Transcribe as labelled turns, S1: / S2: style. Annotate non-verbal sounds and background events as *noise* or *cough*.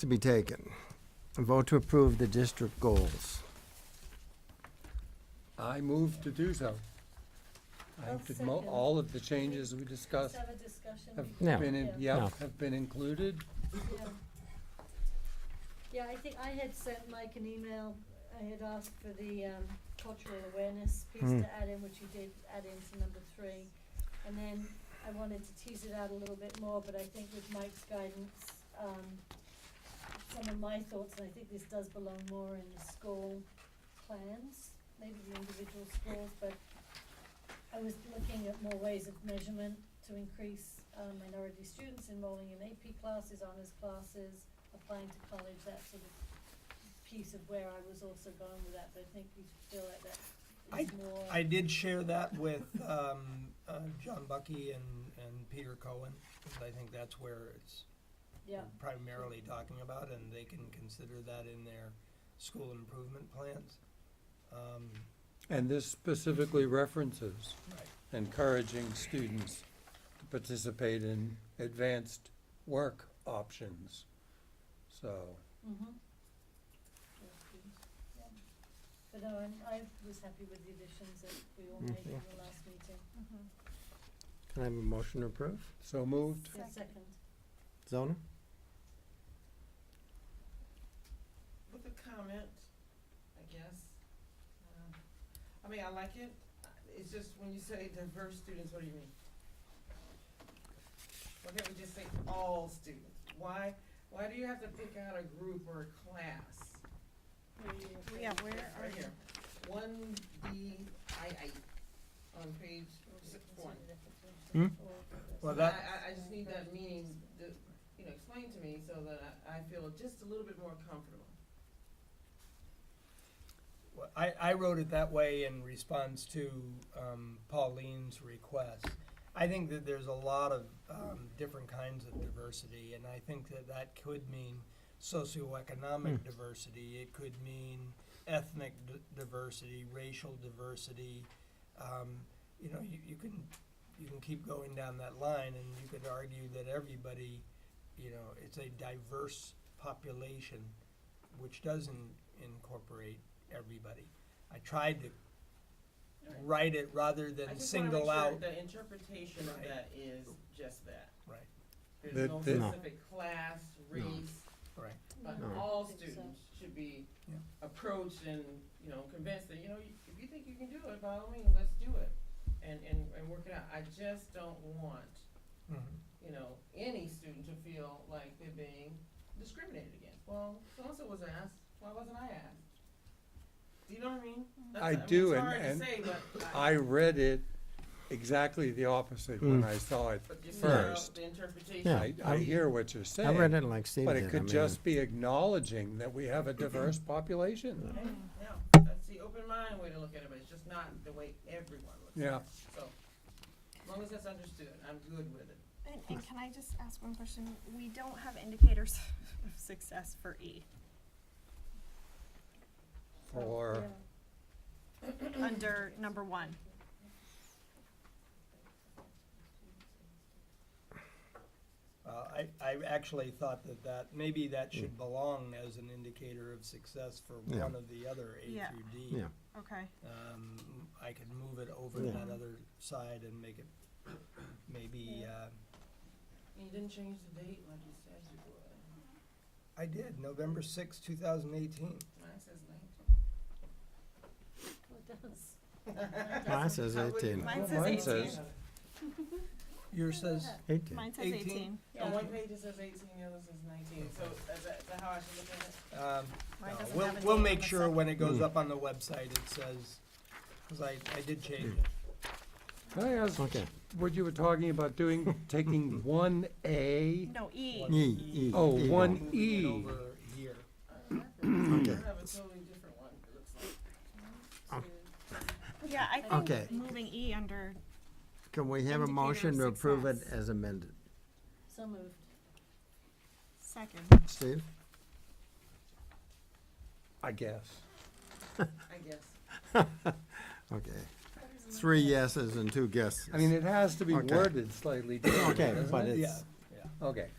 S1: to be taken. A vote to approve the district goals.
S2: I move to do so. I
S3: I'll
S2: did mo-
S3: second.
S2: all of the changes we discussed
S3: Let's have a discussion.
S2: have
S3: before-
S1: No.
S2: been, in-
S3: Yeah,
S1: No.
S2: yep, have been included.
S3: yeah. Yeah, I think I had sent Mike an email, I had asked for the um cultural awareness piece
S1: Mm.
S3: to add in, which you did add in to number three. And then I wanted to tease it out a little bit more, but I think with Mike's guidance, um some of my thoughts, and I think this does belong more in the school plans, maybe the individual schools, but I was looking at more ways of measurement to increase um, minority students enrolling in AP classes, honors classes, applying to college, that sort of piece of where I was also going with that, but I think you feel like that is more.
S4: I did share that with um, uh, John Bucky and, and Peter Cohen, because I think that's where it's
S3: Yeah,
S4: primarily talking about, and they can consider that in their school improvement plans. Um,
S2: And this specifically references
S4: Right.
S2: encouraging students to participate in advanced work options. So,
S3: mhm. That's good, yeah. But no, I'm, I was happy with the additions that we all made in the last meeting.
S1: Can I have a motion to approve?
S2: so moved.
S3: Yeah, Second.
S1: Zona?
S5: with a comment, I guess. Um, I mean, I like it. It's just when you say diverse students, what do you mean? Why can't we just say all students? Why, why do you have to pick out a group or a class?
S6: Yeah, where are
S5: Right
S6: you?
S5: here, one B I I, on page six one.
S1: Hmm?
S4: Well,
S5: I, I,
S4: that,
S5: I just need that meaning, the, you know, explained to me so that I, I feel just a little bit more comfortable.
S4: Well, I, I wrote it that way in response to um, Pauline's request. I think that there's a lot of um, different kinds of diversity, and I think that that could mean socioeconomic diversity, it could mean ethnic d- diversity, racial diversity. Um, you know, you, you can you can keep going down that line, and you could argue that everybody, you know, it's a diverse population, which doesn't incorporate everybody. I tried to write it rather
S5: I
S4: than
S5: just wanna make
S4: single
S5: sure
S4: out.
S5: The interpretation of
S4: Right.
S5: that is just that.
S4: Right.
S5: There's
S2: That-
S5: no
S2: that-
S1: No.
S5: specific class, race,
S4: Right.
S3: No,
S5: but
S3: I don't
S5: all
S3: think so.
S5: students should be
S4: Yeah.
S5: approached and, you know, convinced that, you know, y- if you think you can do it, by all means, let's do it. And, and, and work it out. I just don't want,
S4: Mhm.
S5: you know, any student to feel like they're being discriminated against. Well, so-and-so was asked, why wasn't I asked? Do you know what I mean? That's-
S2: I
S5: mean, it's
S2: do, and-
S5: hard to
S2: and
S5: say, but
S2: I read it exactly the opposite when I saw it.
S5: But just figure out
S2: first.
S5: the interpretation.
S1: Mm. Yeah.
S2: I, I hear what you're
S1: I read
S2: saying,
S1: it like Steve did.
S2: but it
S1: I
S2: could
S1: mean,
S2: just be acknowledging that we have a diverse population.
S5: Hey, No, that's the open mind way to look at it, but it's just not the way everyone looks at it.
S2: Yeah.
S5: So, as long as that's understood, I'm good with it.
S6: And, and can I just ask one question? We don't have indicators *laughs* of success for E,
S2: Or,
S3: Yeah.
S6: under number one.
S4: Well, Uh, I, I actually thought that that, maybe that should belong as an indicator of success for
S1: Mm. Yeah.
S4: one of the other A
S6: Yeah.
S4: through D.
S1: Yeah.
S6: Okay.
S4: Um, I could move it over to
S1: Yeah.
S4: that other side and make it maybe, uh,
S5: And you didn't change the date like you said you would.
S4: I did, November sixth, two thousand eighteen.
S5: Mine says nineteen.
S3: Well, it does.
S1: Mine says
S5: How would you-
S1: 18.
S6: Mine
S2: says Mine 18. says-
S5: On
S4: Yours says,
S1: Eighteen.
S6: Mine says
S4: 18.
S6: eighteen.
S5: one page it says eighteen, the other says nineteen, so is that, is that how I should look at it?
S4: um,
S6: Mine
S4: no,
S6: doesn't
S4: we'll,
S6: have a
S4: we'll
S6: date
S4: make
S6: on the
S4: sure
S6: second.
S4: when it
S1: Mm.
S4: goes up on the website, it says, cause I, I did change it.
S2: Can I ask
S1: Okay.
S2: what you were talking about doing,
S1: *laughs*
S2: taking one A?
S6: No, E.
S1: E, E.
S2: Oh,
S1: E.
S2: one-
S4: Moving it
S2: E.
S4: Over here.
S5: I
S1: Okay.
S5: have a totally different one, it looks like.
S6: Yeah, I
S1: Okay.
S6: think moving E under,
S1: Can we have a
S6: Indicator of
S1: motion to approve it
S6: success.
S1: as amended?
S3: So moved.
S6: second.
S1: Steve?
S2: I guess.
S5: I guess.
S1: Okay. Three yeses and two guesses.
S2: I mean, it has to be
S1: Okay.
S2: worded slightly differently,
S1: Okay,
S2: doesn't
S1: but
S2: it?
S1: it's,
S4: Yeah.
S2: Okay,